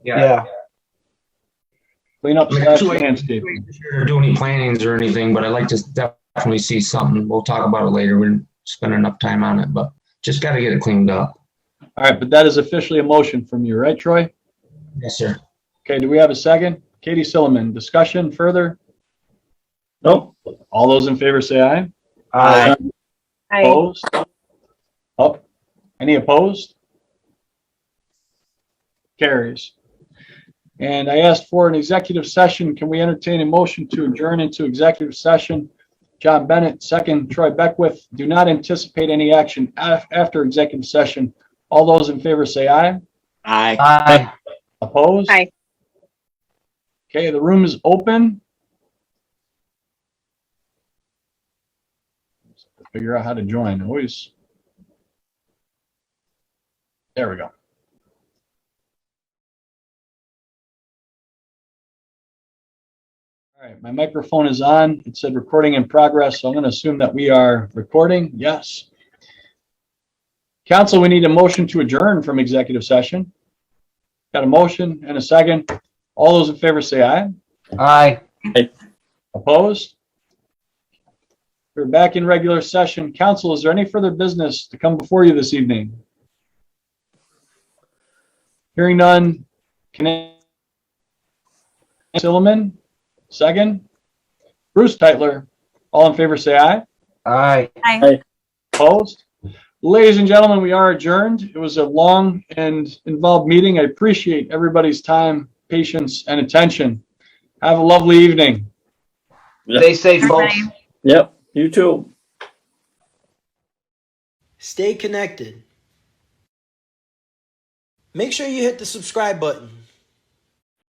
Yeah, Clean up I mean, slash two ways- landscape. Or do any plannings or anything, but I'd like to definitely see something. We'll talk about it later. We didn't spend enough time on it, but just gotta get it cleaned up. All right, but that is officially a motion from you, right, Troy? Yes, sir. Okay, do we have a second? Katie Silliman, discussion further? Nope. All those in favor say aye. Aye. I, Opposed? Up. Any opposed? Carries. And I asked for an executive session. Can we entertain a motion to adjourn into executive session? John Bennett, second. Troy Beckwith, do not anticipate any action af- after executive session. All those in favor say aye. Aye. Aye. Opposed? Aye. Okay, the room is open. Figure out how to join, always. There we go. All right, my microphone is on. It said recording in progress, so I'm going to assume that we are recording. Yes. Council, we need a motion to adjourn from executive session. Got a motion and a second. All those in favor say aye. Aye. Opposed? We're back in regular session. Council, is there any further business to come before you this evening? Hearing none. Can I? Silliman, second. Bruce Titler, all in favor say aye. Aye. Opposed? Ladies and gentlemen, we are adjourned. It was a long and involved meeting. I appreciate everybody's time, patience, and attention. Have a lovely evening. Stay safe, folks. Everybody. Yep, you too. Stay connected. Make sure you hit the subscribe button.